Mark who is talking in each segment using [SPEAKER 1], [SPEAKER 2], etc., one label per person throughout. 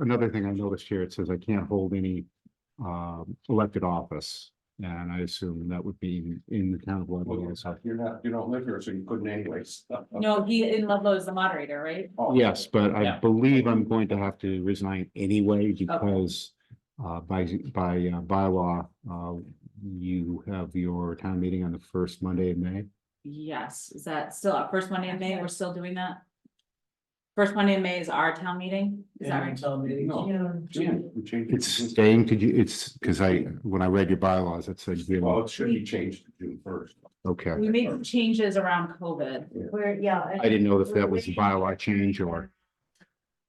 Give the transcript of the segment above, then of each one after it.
[SPEAKER 1] another thing I noticed here, it says I can't hold any um elected office. And I assume that would be in the town of Leadville also.
[SPEAKER 2] You're not, you don't live here, so you couldn't anyways.
[SPEAKER 3] No, he in Ludlow is the moderator, right?
[SPEAKER 2] Oh.
[SPEAKER 1] Yes, but I
[SPEAKER 3] Yeah.
[SPEAKER 1] believe I'm going to have to resign anyway because uh, by, by uh, bylaw, uh, you have your town meeting on the first Monday of May.
[SPEAKER 3] Yes, is that still our first Monday in May? We're still doing that? First Monday in May is our town meeting? Is that right?
[SPEAKER 1] Oh,
[SPEAKER 2] No, Jan, we changed. it.
[SPEAKER 1] It's
[SPEAKER 3] Mm-hmm.
[SPEAKER 1] staying to, Ju- it's, because I, when I read your bylaws, it said, June.
[SPEAKER 2] Well, it should be changed to June first.
[SPEAKER 1] okay.
[SPEAKER 3] We made some changes around COVID.
[SPEAKER 4] We're, yeah.
[SPEAKER 1] I didn't know if that was a bylaw change or,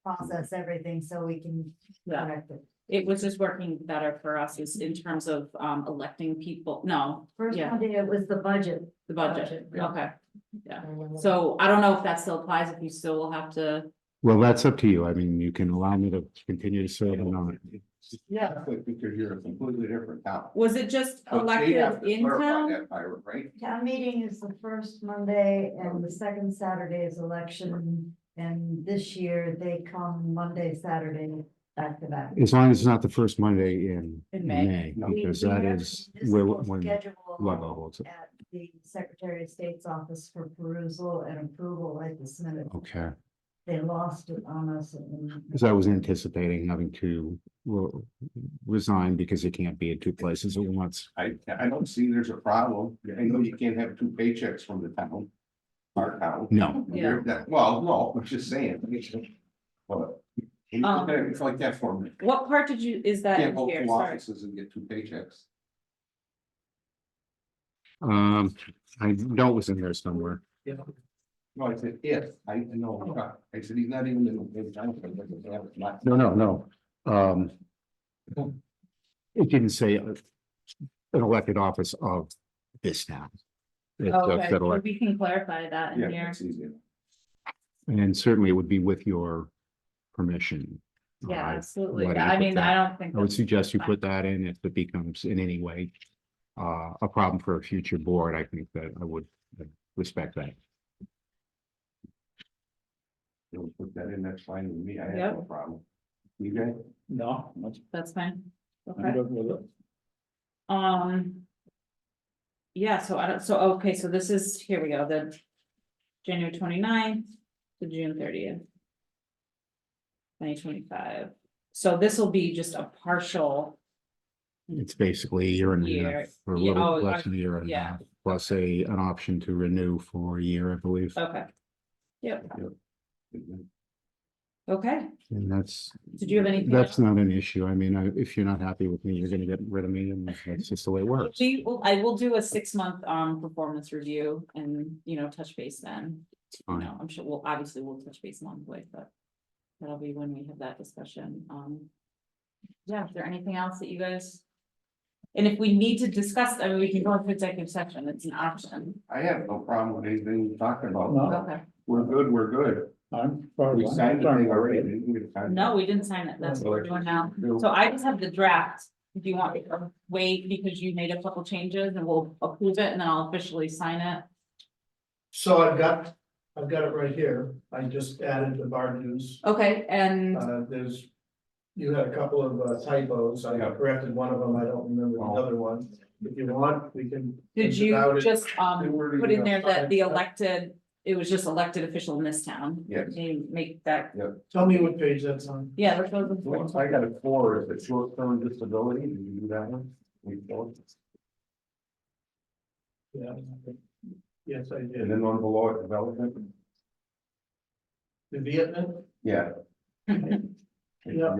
[SPEAKER 4] Process everything so we can
[SPEAKER 3] Yeah.
[SPEAKER 4] correct it.
[SPEAKER 3] It was just working better for us is in terms of um electing people, no,
[SPEAKER 4] First
[SPEAKER 3] Yeah.
[SPEAKER 4] Monday, it was the budget.
[SPEAKER 3] the budget.
[SPEAKER 4] Budget, yeah.
[SPEAKER 3] Okay, so I don't know if that still applies, if you still will have to,
[SPEAKER 1] well, that's up to you. I mean, you can allow me to continue to serve or not.
[SPEAKER 4] Yeah.
[SPEAKER 2] Because you're a completely different town.
[SPEAKER 3] was it just
[SPEAKER 2] But they have to
[SPEAKER 3] elected Oh, in
[SPEAKER 2] clarify
[SPEAKER 3] town?
[SPEAKER 2] that, Ira, Right?
[SPEAKER 4] Town meeting is the first Monday and the second Saturday is election. And this year they come Monday, Saturday, back to back.
[SPEAKER 1] As long as it's not the first Monday in
[SPEAKER 3] In May.
[SPEAKER 1] May,
[SPEAKER 2] No.
[SPEAKER 4] We-
[SPEAKER 1] Um, because
[SPEAKER 4] we
[SPEAKER 1] that
[SPEAKER 4] have
[SPEAKER 1] is
[SPEAKER 4] a
[SPEAKER 1] where,
[SPEAKER 4] municipal
[SPEAKER 1] when
[SPEAKER 4] schedule
[SPEAKER 1] Ludlow holds it.
[SPEAKER 4] At the Secretary of State's office for perusal and approval at this minute.
[SPEAKER 1] Okay.
[SPEAKER 4] They lost it on us. and-
[SPEAKER 1] Because I was anticipating having to well, resign because you can't be in two places at once.
[SPEAKER 2] I, I don't see there's a problem. I know you can't have two paychecks from the town. Our town.
[SPEAKER 1] No,
[SPEAKER 3] Yeah.
[SPEAKER 2] That- Well, no, I'm just saying. But It's like that for me.
[SPEAKER 3] What part did you, is Um, that
[SPEAKER 2] Can't
[SPEAKER 3] in
[SPEAKER 2] hold
[SPEAKER 3] here?
[SPEAKER 2] two
[SPEAKER 3] Sorry.
[SPEAKER 2] offices and get two paychecks.
[SPEAKER 1] um, I know it was in there somewhere.
[SPEAKER 2] No, I said, if, I I know, I said, he's not even in the. in town, but he doesn't have it.
[SPEAKER 1] No, no, no. Um. It didn't say uh, an elected office of this town. It just
[SPEAKER 3] Oh, Okay,
[SPEAKER 1] said elect-
[SPEAKER 3] we can clarify that in
[SPEAKER 2] Yeah,
[SPEAKER 3] here.
[SPEAKER 2] it's easy.
[SPEAKER 1] And certainly it would be with your permission. Uh,
[SPEAKER 3] Yeah, absolutely.
[SPEAKER 1] why did
[SPEAKER 3] Yeah,
[SPEAKER 1] you
[SPEAKER 3] I
[SPEAKER 1] put
[SPEAKER 3] mean, I
[SPEAKER 1] that?
[SPEAKER 3] don't think.
[SPEAKER 1] I would
[SPEAKER 3] that's-
[SPEAKER 1] suggest you
[SPEAKER 3] fine.
[SPEAKER 1] put that in if it becomes in any way uh, a problem for a future board. I think that I would uh, respect that.
[SPEAKER 2] You'll put that in, that's fine with me, I have
[SPEAKER 3] Yep.
[SPEAKER 2] no problem. You guys?
[SPEAKER 5] No, that's,
[SPEAKER 3] That's fine.
[SPEAKER 5] I'm
[SPEAKER 3] Okay,
[SPEAKER 5] good with it.
[SPEAKER 3] um. Yeah, so I don't, so, okay, so this is, here we go, the January 29th to June thirtieth. Twenty twenty-five. So this will be just a partial,
[SPEAKER 1] It's basically a year and a
[SPEAKER 3] Year,
[SPEAKER 1] half, or a
[SPEAKER 3] yeah,
[SPEAKER 1] little
[SPEAKER 3] oh,
[SPEAKER 1] less
[SPEAKER 3] I-
[SPEAKER 1] than a year and a
[SPEAKER 3] yeah.
[SPEAKER 1] half, plus a, an option to renew for a year, I believe.
[SPEAKER 3] okay. Yep, okay.
[SPEAKER 1] And that's.
[SPEAKER 3] Did you have anything
[SPEAKER 1] That's not an issue. I mean, I- if you're not happy with me, you're gonna get rid of me, and that's just the way it works.
[SPEAKER 3] We will, I will do a six-month, um, performance review and, you know, touch base then. You
[SPEAKER 1] Fine.
[SPEAKER 3] know, I'm sure, we'll obviously we'll touch base along the way, but that'll be when we have that discussion, um. Yeah, is there anything else that you guys? And if we need to discuss, I mean, we can go into executive session, it's an option,
[SPEAKER 2] I have no problem with anything you're talking
[SPEAKER 5] No.
[SPEAKER 2] about,
[SPEAKER 3] okay,
[SPEAKER 2] we're good, we're good,
[SPEAKER 5] I'm. far
[SPEAKER 2] we
[SPEAKER 5] along.
[SPEAKER 2] signed the
[SPEAKER 5] Fine.
[SPEAKER 2] thing already. didn't we?
[SPEAKER 3] no, we didn't sign it, that's what we're doing now, so I just have the draft. Do you want me to wait because you made a couple changes and we'll approve it and then I'll officially sign it?
[SPEAKER 6] So I've got, I've got it right here, I just added the bar news,
[SPEAKER 3] Okay, and
[SPEAKER 6] uh, there's. You had a couple of uh, typos, I corrected one of them, I don't remember the other one, if you want, we can.
[SPEAKER 3] Did
[SPEAKER 6] think
[SPEAKER 3] you
[SPEAKER 6] about it.
[SPEAKER 3] just
[SPEAKER 2] Then
[SPEAKER 3] um
[SPEAKER 2] where do you
[SPEAKER 3] put in
[SPEAKER 2] go?
[SPEAKER 3] there that the
[SPEAKER 6] Fine.
[SPEAKER 3] elected, it was just elected official in this town?
[SPEAKER 2] Yes.
[SPEAKER 3] You make that,
[SPEAKER 6] Tell me what page that's on,
[SPEAKER 3] yeah, that's what I was looking
[SPEAKER 2] Once
[SPEAKER 3] for.
[SPEAKER 2] I got a four, is it short-term disability, did you do that one? We don't.
[SPEAKER 6] yeah. Yes, I
[SPEAKER 2] And
[SPEAKER 6] did,
[SPEAKER 2] then on below it, development,
[SPEAKER 6] the Vietnam,
[SPEAKER 2] yeah.
[SPEAKER 6] Yeah.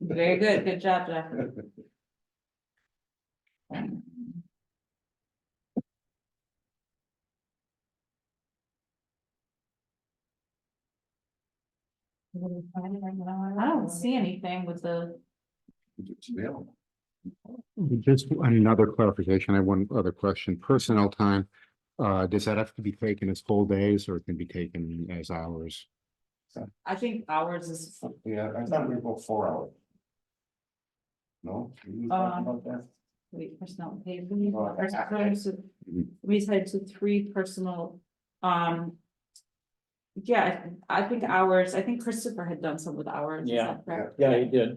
[SPEAKER 3] Very good, good job, Jeff. I don't see anything with the,
[SPEAKER 2] Yeah.
[SPEAKER 1] Just another clarification, I have one other question, personnel time, uh, does that have to be taken as full days, or it can be taken as hours?
[SPEAKER 3] I think ours is,
[SPEAKER 2] Yeah, I thought we were both four hours. No? we didn't talk
[SPEAKER 3] Um,
[SPEAKER 2] about that?
[SPEAKER 3] wait, personal pay. we need
[SPEAKER 2] Well,
[SPEAKER 3] first
[SPEAKER 2] I- I-
[SPEAKER 3] person- We said to three personal, um. yeah, I think ours, I think Christopher had done some with ours. is
[SPEAKER 6] Yeah.
[SPEAKER 3] that correct?
[SPEAKER 6] Yeah, he did.